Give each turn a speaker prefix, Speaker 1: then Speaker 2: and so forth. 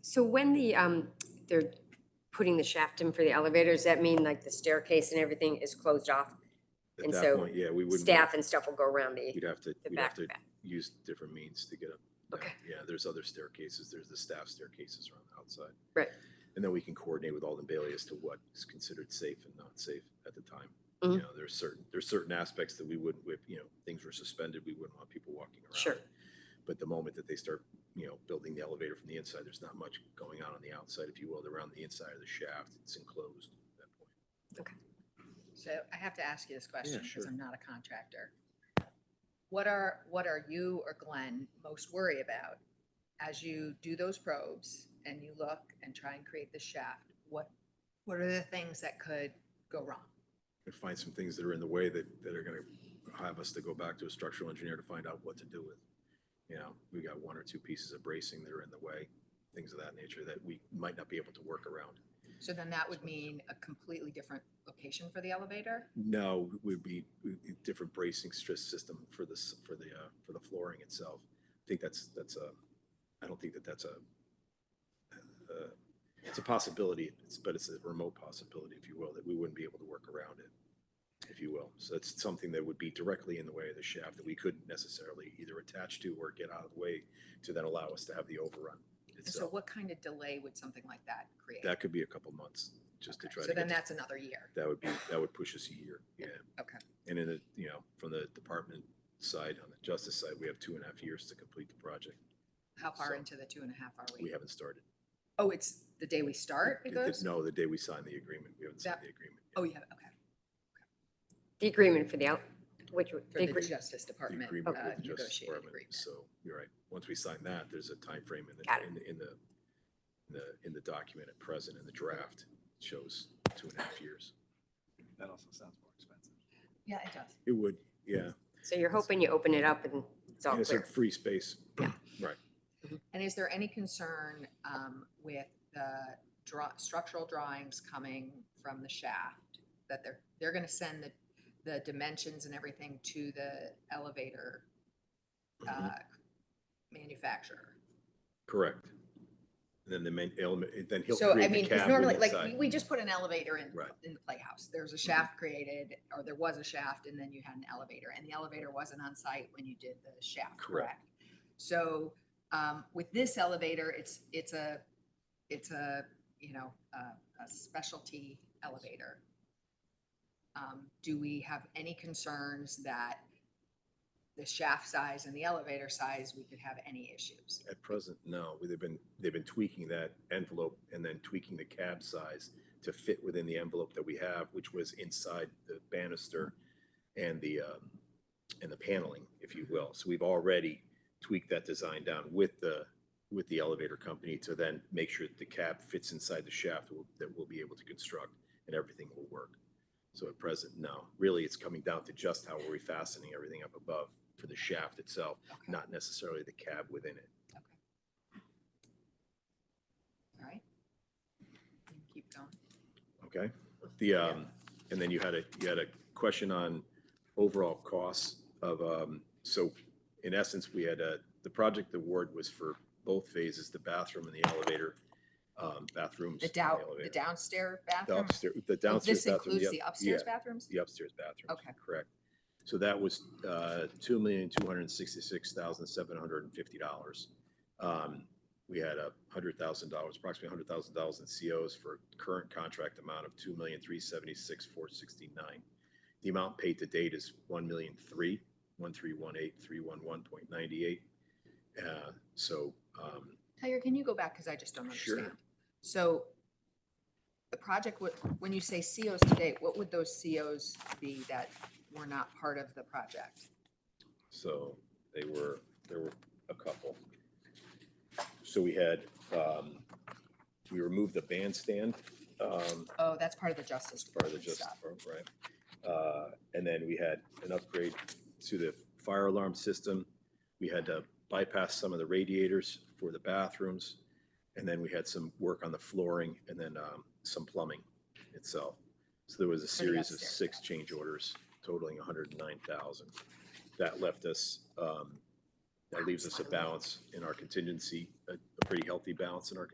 Speaker 1: So when the, um, they're putting the shaft in for the elevator, does that mean like the staircase and everything is closed off?
Speaker 2: At
Speaker 1: And
Speaker 2: that
Speaker 1: so
Speaker 2: point, yeah, we wouldn't.
Speaker 1: Staff and stuff will go around the,
Speaker 2: We'd have to,
Speaker 1: the
Speaker 2: we'd
Speaker 1: back.
Speaker 2: have to use different means to get up. down.
Speaker 1: Okay.
Speaker 2: Yeah, there's other staircases. There's the staff staircases around the outside.
Speaker 1: Right.
Speaker 2: And then we can coordinate with Alden Bailey as to what is considered safe and not safe at the time. You
Speaker 1: Mhm.
Speaker 2: know, there's certain, there's certain aspects that we wouldn't, whip. you know, things were suspended. We wouldn't want people walking around.
Speaker 1: Sure.
Speaker 2: But the moment that they start, you know, building the elevator from the inside, there's not much going on on the outside, if you will. They're around the inside of the shaft. It's enclosed at that point.
Speaker 3: So I have to ask you this question
Speaker 2: sure.
Speaker 3: because I'm not a contractor. What are, what are you or Glenn most worried about as you do those probes and you look and try and create the shaft? What, what are the things that could go wrong?
Speaker 2: and find some things that are in the way that, that are gonna have us to go back to a structural engineer to find out what to do with. You know, we got one or two pieces of bracing that are in the way, things of that nature that we might not be able to work around.
Speaker 3: So then that would mean a completely different location for the elevator?
Speaker 2: No, would be uh, a different bracing stress system for this, for the, uh, for the flooring itself. I think that's, that's a, I don't think that that's a, uh, it's a possibility, it's, but it's a remote possibility, if you will, that we wouldn't be able to work around it, if you will. So that's something that would be directly in the way of the shaft that we couldn't necessarily either attach to or get out of the way to then allow us to have the overrun
Speaker 3: And so
Speaker 2: itself.
Speaker 3: what kind of delay would something like that create?
Speaker 2: That could be a couple months, just to
Speaker 3: Okay,
Speaker 2: try to.
Speaker 3: So
Speaker 2: get
Speaker 3: then
Speaker 2: the-
Speaker 3: that's another year.
Speaker 2: that would be, that would push us a year, yeah.
Speaker 3: Okay.
Speaker 2: And in the, you know, from the department side, on the justice side, we have two and a half years to complete the project.
Speaker 3: How far
Speaker 2: So-
Speaker 3: into the two and a half are
Speaker 2: We
Speaker 3: we?
Speaker 2: haven't started.
Speaker 3: Oh, it's the day we start it
Speaker 2: The- the-
Speaker 3: goes?
Speaker 2: No, the day we signed the agreement, we haven't signed
Speaker 3: That-
Speaker 2: the agreement. yet.
Speaker 3: Oh, yeah, okay.
Speaker 1: the agreement for the, out- which, would-
Speaker 3: For the
Speaker 1: agree-
Speaker 3: Justice
Speaker 2: The
Speaker 3: Department
Speaker 2: agreement
Speaker 3: uh,
Speaker 2: with the Justice
Speaker 3: negotiated
Speaker 2: Department.
Speaker 3: agreement.
Speaker 2: So you're right. Once we sign that, there's a timeframe in
Speaker 1: Got
Speaker 2: the,
Speaker 1: it.
Speaker 2: in the, in the, in the, in the document at present, in the draft, it shows two and a half years.
Speaker 4: That also sounds more expensive.
Speaker 3: Yeah, it does.
Speaker 2: It would, yeah.
Speaker 1: so you're hoping you open it up and it's all
Speaker 2: And It's a
Speaker 1: clear.
Speaker 2: free space.
Speaker 3: And is there any concern um, with the draw, structural drawings coming from the shaft? That they're, they're gonna send the, the dimensions and everything to the elevator
Speaker 2: Mhm.
Speaker 3: uh, manufacturer?
Speaker 2: Correct. And then the main element, then he'll
Speaker 3: So I
Speaker 2: create the
Speaker 3: mean, because
Speaker 2: cab
Speaker 3: normally,
Speaker 2: when we
Speaker 3: like,
Speaker 2: decide.
Speaker 3: we just put an elevator in,
Speaker 2: Right. Mm-hmm.
Speaker 3: in the playhouse. There's a shaft created, or there was a shaft, and then you had an elevator, and the elevator wasn't on site when you did the shaft,
Speaker 2: Correct.
Speaker 3: correct? So, um, with this elevator, it's, it's a, it's a, you know, a, a specialty elevator. Um, do we have any concerns that the shaft size and the elevator size, we could have any issues?
Speaker 2: At present, no. They've been, they've been tweaking that envelope and then tweaking the cab size to fit within the envelope that we have, which was inside the banister and the, um, and the paneling, if you will. So we've already tweaked that design down with the, with the elevator company to then make sure that the cab fits inside the shaft that we'll- that we'll be able to construct and everything will work. So at present, no. Really, it's coming down to just how we're refastening everything up above for the shaft itself,
Speaker 3: Okay,
Speaker 2: not necessarily the cab within it.
Speaker 3: all right. You can Keep going.
Speaker 2: Okay, the, um, and then you had a, you had a question on overall costs of, um, so in essence, we had a, the project award was for both phases, the bathroom and the elevator, um, bathrooms.
Speaker 3: The
Speaker 2: and
Speaker 3: down, the
Speaker 2: elevator.
Speaker 3: downstairs
Speaker 2: The
Speaker 3: bathroom?
Speaker 2: upstairs, the
Speaker 3: Oh,
Speaker 2: downstairs
Speaker 3: This
Speaker 2: bathroom.
Speaker 3: includes
Speaker 2: up-
Speaker 3: the
Speaker 2: yeah,
Speaker 3: upstairs bathrooms?
Speaker 2: The upstairs bathroom.
Speaker 3: Okay.
Speaker 2: Correct. So that was, uh, two million, two hundred and sixty-six thousand, seven hundred and fifty dollars. Um, we had a hundred thousand dollars, approximately hundred thousand dollars in COs for current contract amount of two million, three seventy-six, four sixty-nine. The amount paid to date is one million, three, one, three, one, eight, three, one, one point ninety-eight. Uh, so, um,
Speaker 3: Tyler, can you go back? Because I just don't
Speaker 2: Sure.
Speaker 3: understand. So the project, would when you say COs today, what would those COs be that were not part of the project?
Speaker 2: So they were, there were a couple. So we had, um, we removed the bandstand, um,
Speaker 3: Oh, that's part of the justice
Speaker 2: part of the
Speaker 3: department
Speaker 2: just,
Speaker 3: stuff.
Speaker 2: right? Uh, and then we had an upgrade to the fire alarm system. We had to bypass some of the radiators for the bathrooms. And then we had some work on the flooring and then, um, some plumbing itself. So there was a
Speaker 3: For the
Speaker 2: series of
Speaker 3: upstairs.
Speaker 2: six change orders totaling hundred and nine thousand. That left us, um, that leaves us a balance in our contingency, a, a pretty healthy balance in our